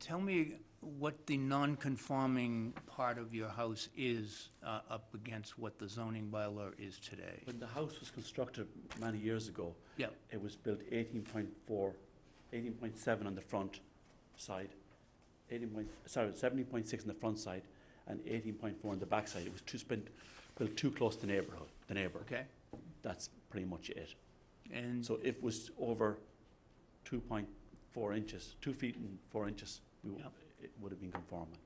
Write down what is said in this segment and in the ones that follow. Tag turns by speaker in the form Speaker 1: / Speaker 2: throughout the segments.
Speaker 1: Tell me what the non-conforming part of your house is uh, up against what the zoning bylaw is today.
Speaker 2: When the house was constructed many years ago,
Speaker 1: Yeah,
Speaker 2: it was built 18.4, 18.7 on the front side, 18 point, sorry, 17.6 on the front side, and 18.4 on the back side. It was too spent, built too close to neighborhood, the neighbor.
Speaker 1: okay,
Speaker 2: That's pretty much it.
Speaker 1: and,
Speaker 2: So if it was over 2.4 inches, 2 feet and 4 inches, we w- it would have been conforming.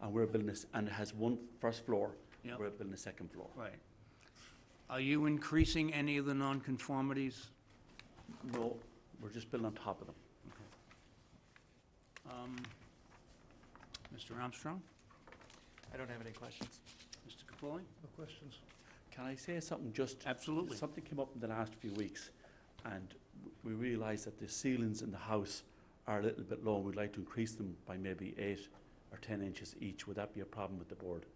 Speaker 2: And we're building this, and it has one first floor,
Speaker 1: yeah,
Speaker 2: we're building a second floor.
Speaker 1: right. Are you increasing any of the non-conformities?
Speaker 2: No, we're just building on top of them.
Speaker 1: Um, Mr. Armstrong,
Speaker 3: I don't have any questions.
Speaker 1: Mr. Capoli?
Speaker 4: No questions.
Speaker 2: Can I say something just?
Speaker 1: Absolutely.
Speaker 2: Something came up in the last few weeks, and w- we realised that the ceilings in the house are a little bit low, and we'd like to increase them by maybe eight or ten inches each. Would that be a problem with the board?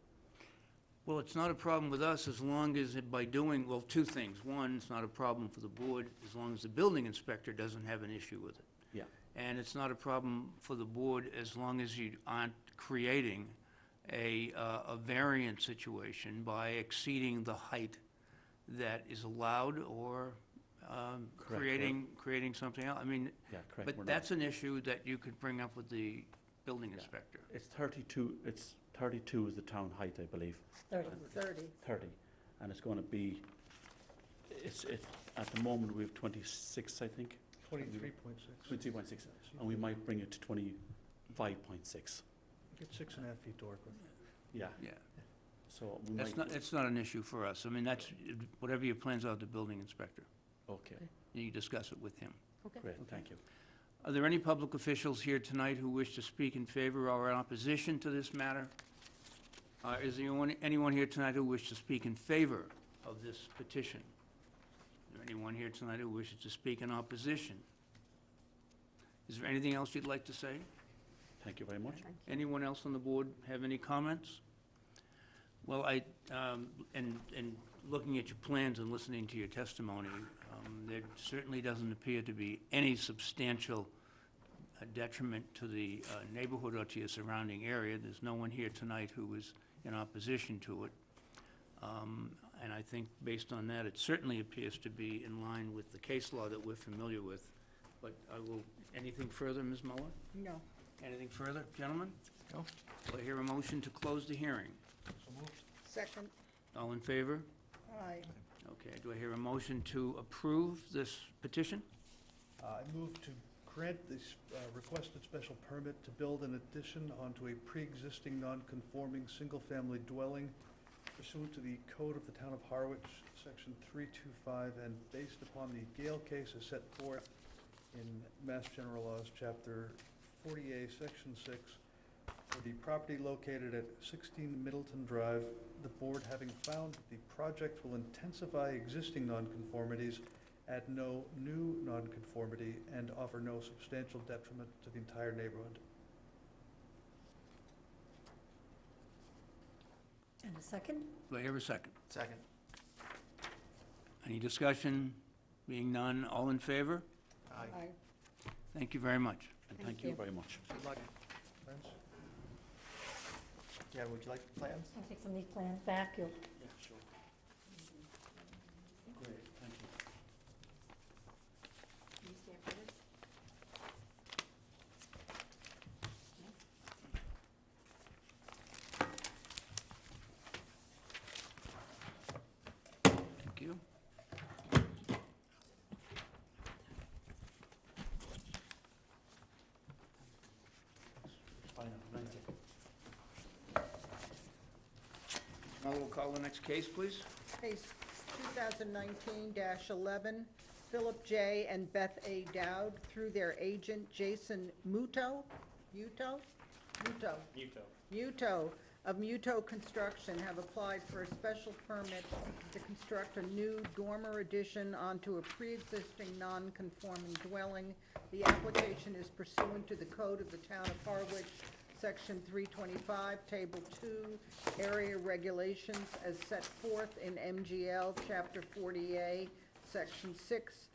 Speaker 1: Well, it's not a problem with us as long as it- by doing, well, two things. One, it's not a problem for the board as long as the building inspector doesn't have an issue with it.
Speaker 2: Yeah.
Speaker 1: And it's not a problem for the board as long as you aren't creating a, uh, a variant situation by exceeding the height that is allowed or um,
Speaker 2: Correct, we're-
Speaker 1: creating, creating something else. I mean,
Speaker 2: Yeah, correct.
Speaker 1: but
Speaker 2: we're not-
Speaker 1: that's an issue that you could bring up with the building inspector.
Speaker 2: It's thirty-two, it's thirty-two is the town height, I believe,
Speaker 5: Thirty, thirty.
Speaker 2: thirty, and it's gonna be, it's, it, at the moment, we have twenty-six, I think,
Speaker 4: Twenty-three point six.
Speaker 2: twenty-two point six, and we might bring it to twenty-five point six.
Speaker 4: Get six and a half feet to work with.
Speaker 2: Yeah,
Speaker 1: Yeah.
Speaker 2: so we might.
Speaker 1: That's not, it's not an issue for us. I mean, that's, whatever your plans are, with the building inspector,
Speaker 2: Okay,
Speaker 1: you discuss it with him.
Speaker 2: great, thank you.
Speaker 1: Are there any public officials here tonight who wish to speak in favor or in opposition to this matter? Uh, Is there anyone- anyone here tonight who wishes to speak in favor of this petition? Is there anyone here tonight who wishes to speak in opposition? Is there anything else you'd like to say?
Speaker 2: Thank you very much.
Speaker 1: Anyone else on the board have any comments? Well, I, um, and, and looking at your plans and listening to your testimony, um, there certainly doesn't appear to be any substantial uh, detriment to the uh, neighborhood or to your surrounding area. There's no one here tonight who is in opposition to it. Um, And I think based on that, it certainly appears to be in line with the case law that we're familiar with. But I will, anything further, Ms. Muller?
Speaker 5: No.
Speaker 1: Anything further, gentlemen?
Speaker 3: No.
Speaker 1: Do I hear a motion to close the hearing?
Speaker 4: So moved.
Speaker 5: Second,
Speaker 1: All in favor?
Speaker 5: aye.
Speaker 1: Okay, do I hear a motion to approve this petition?
Speaker 4: Uh, I move to grant this uh, requested special permit to build an addition onto a pre-existing non-conforming single-family dwelling pursuant to the code of the town of Harwich, section three-two-five, and based upon the Gale case as set forth in Mass General Laws, chapter forty A, section six, for the property located at sixteen Middleton Drive, the board having found that the project will intensify existing nonconformities add no new nonconformity, and offer no substantial detriment to the entire neighborhood.
Speaker 5: And a second?
Speaker 1: Do I hear a second?
Speaker 3: Second.
Speaker 1: Any discussion? Being none, all in favor?
Speaker 3: Aye.
Speaker 1: Thank you very much.
Speaker 2: And
Speaker 5: Thank
Speaker 2: thank you
Speaker 5: you.
Speaker 2: very much.
Speaker 3: Good luck.
Speaker 4: Friends?
Speaker 3: Jan, would you like the plans?
Speaker 5: I'll take some of these plans back, you'll
Speaker 3: Yeah, sure.
Speaker 2: Great, thank you.
Speaker 5: Can you stand for this?
Speaker 1: Thank you.
Speaker 2: Bye now. Nice to-
Speaker 1: Now we'll call the next case, please.
Speaker 6: Case 2019-11, Philip J. and Beth A. Dowd, through their agent Jason Muto, Muto? Muto. Muto of Muto Construction have applied for a special permit to construct a new dormer addition onto a pre-existing non-conforming dwelling. The application is pursuant to the code of the town of Harwich, section three twenty-five, table two, area regulations as set forth in MGL, chapter forty A, section six,